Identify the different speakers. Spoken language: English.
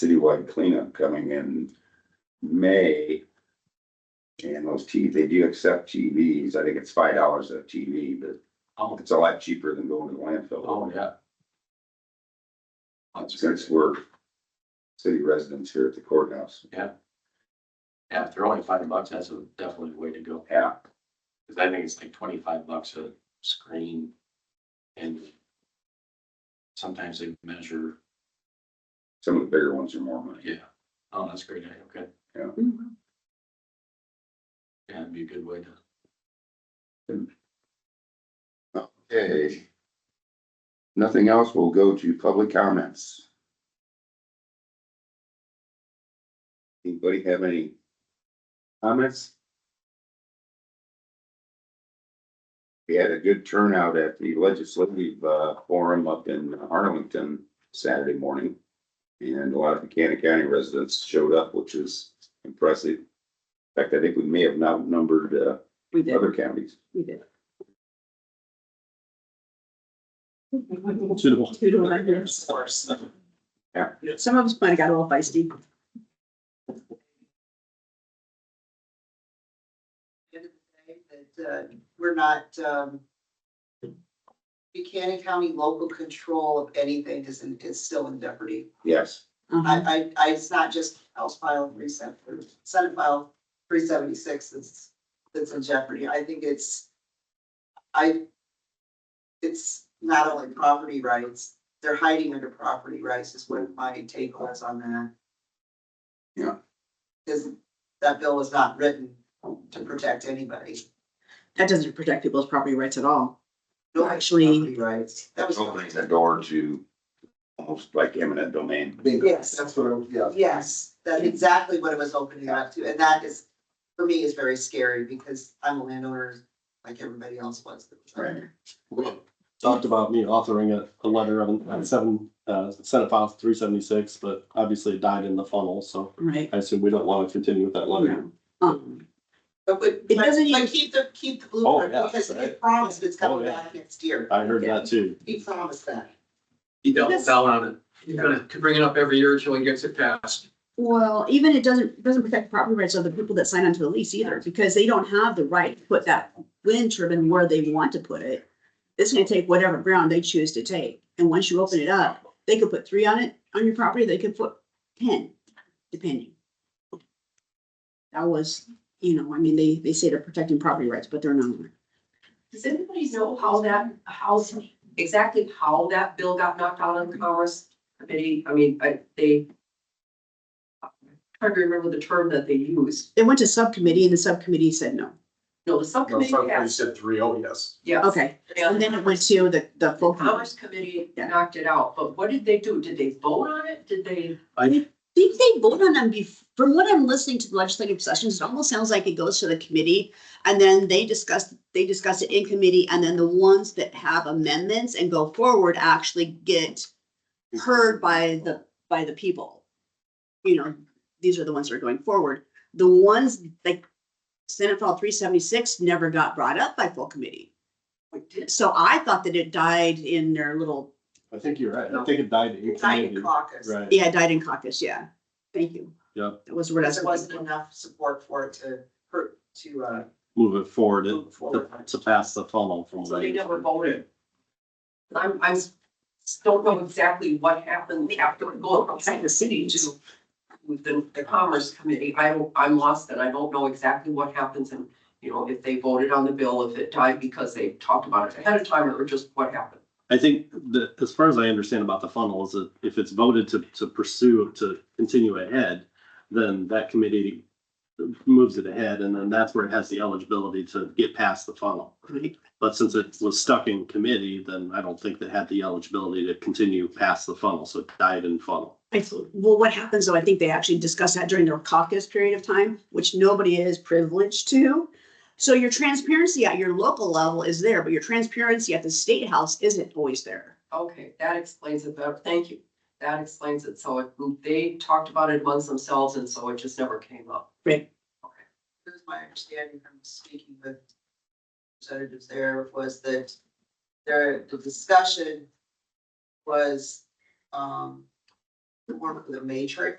Speaker 1: citywide cleanup coming in May. And those T, they do accept TVs. I think it's five dollars a TV, but
Speaker 2: Oh,
Speaker 1: it's a lot cheaper than going to the landfill.
Speaker 2: oh, yeah. That's
Speaker 1: Since
Speaker 2: good.
Speaker 1: we're city residents here at the courthouse.
Speaker 2: Yeah, if they're only five bucks, that's a definitely way to go.
Speaker 1: Yeah,
Speaker 2: Cause I think it's like twenty-five bucks a screen. And sometimes they measure,
Speaker 1: some of the bigger ones are more money.
Speaker 2: yeah. Oh, that's a great. idea. Okay.
Speaker 3: Mhm.
Speaker 2: Yeah, it'd be a good way to.
Speaker 1: Okay. Nothing else will go to public comments. Anybody have any comments? We had a good turnout at the legislative uh, forum up in Arlington Saturday morning. And a lot of Buchanan County residents showed up, which was impressive. In fact, I think we may have now numbered uh,
Speaker 3: We did,
Speaker 1: other counties.
Speaker 3: we did.
Speaker 4: Two to one.
Speaker 3: Two to one, yes.
Speaker 1: Yeah.
Speaker 3: Some of us might have got a little feisty.
Speaker 5: end of the day, that, uh, we're not, um, Buchanan County local control of anything is, in- is still in jeopardy.
Speaker 1: Yes,
Speaker 3: Uh-huh.
Speaker 5: I, I, I, it's not just House File three seven, or Senate File three seventy-six that's, that's in jeopardy. I think it's, I, it's not only property rights, they're hiding under property rights is what my take was on that.
Speaker 1: Yeah.
Speaker 5: Cause that bill was not written to protect anybody.
Speaker 3: That doesn't protect people's property rights at all.
Speaker 5: No,
Speaker 3: Actually-
Speaker 5: property rights. That was.
Speaker 1: opening the door to almost like eminent domain.
Speaker 5: Yes.
Speaker 6: That's what, I'm- yeah.
Speaker 5: Yes, that's exactly what it was opening up to, and that is, for me, is very scary, because I'm a landowner, like everybody else was. that was out
Speaker 1: Right.
Speaker 5: there.
Speaker 4: Talked about me authoring a, a letter on on seven, uh, Senate file three seventy-six, but obviously it died in the funnel, so
Speaker 3: Right.
Speaker 4: I assume we don't want to continue with that letter.
Speaker 3: Um,
Speaker 5: But, but,
Speaker 3: It doesn't
Speaker 5: but
Speaker 3: even-
Speaker 5: keep the, keep the blueprint,
Speaker 4: yeah,
Speaker 5: because he
Speaker 4: Oh, right.
Speaker 5: promised it's coming
Speaker 4: Oh, yeah.
Speaker 5: back next year,
Speaker 4: I heard that too.
Speaker 5: he promised that.
Speaker 2: You
Speaker 3: Yes.
Speaker 2: down on it.
Speaker 5: You're
Speaker 2: gonna bring it up every year until he gets it passed.
Speaker 3: Well, even it doesn't, doesn't protect property rights of the people that sign onto the lease either, because they don't have the right to put that wind turbine where they want to put it. It's gonna take whatever ground they choose to take, and once you open it up, they could put three on it, on your property, they could put ten, depending. That was, you know, I mean, they, they say they're protecting property rights, but they're not.
Speaker 7: Does anybody know how that, how, exactly how that bill got knocked out on the Commerce Committee? I mean, I, they. Trying to remember the term that they used.
Speaker 3: It went to subcommittee, and the subcommittee said no.
Speaker 7: No, the
Speaker 6: No,
Speaker 7: subcommittee
Speaker 6: somebody
Speaker 7: passed,
Speaker 6: said three, oh, yes.
Speaker 7: yes.
Speaker 3: Okay, and then it went to the, the
Speaker 7: The
Speaker 3: full committee.
Speaker 7: Commerce Committee
Speaker 3: Yeah.
Speaker 7: knocked it out, but what did they do? Did they vote on it? Did they?
Speaker 3: think they vote on them bef- from what I'm listening to the legislative sessions, it almost sounds like it goes to the committee. And then they discuss, they discuss it in committee and then the ones that have amendments and go forward actually get heard by the, by the people. You know, these are the ones that are going forward. The ones like Senate File three seventy-six never got brought up by full committee.
Speaker 7: What did?
Speaker 3: So I thought that it died in their little,
Speaker 4: I think you're right. I think it died in
Speaker 5: United
Speaker 4: community.
Speaker 5: caucus,
Speaker 4: Right.
Speaker 3: yeah, it died in caucus, yeah. Thank you.
Speaker 4: Yeah.
Speaker 3: That was the word I was
Speaker 5: there
Speaker 3: looking
Speaker 5: wasn't enough support for it to, hurt to, uh,
Speaker 4: Move it forward to,
Speaker 5: move forward.
Speaker 4: to pass the funnel from.
Speaker 7: So they
Speaker 4: there.
Speaker 7: never voted. I'm, I'm, s- don't know exactly what happened after it go outside the city to with the, the Commerce Committee. I don't, I'm lost and I don't know exactly what happens and, you know, if they voted on the bill, if it died because they talked about it ahead of time or just what happened.
Speaker 4: I think that, as far as I understand about the funnel, is that if it's voted to, to pursue, to continue ahead, then that committee moves it ahead, and then that's where it has the eligibility to get past the funnel.
Speaker 3: Right.
Speaker 4: But since it was stuck in committee, then I don't think that had the eligibility to continue past the funnel, so it died in funnel.
Speaker 3: I, well, what happens though, I think they actually discuss that during their caucus period of time, which nobody is privileged to. So your transparency at your local level is there, but your transparency at the state house isn't always there.
Speaker 7: Okay, that explains it better. Thank you. That explains it. So it- they talked about it amongst themselves and so it just never came up.
Speaker 5: here's my understanding from speaking with representatives there was that there, the discussion was, um, the one with the matrix.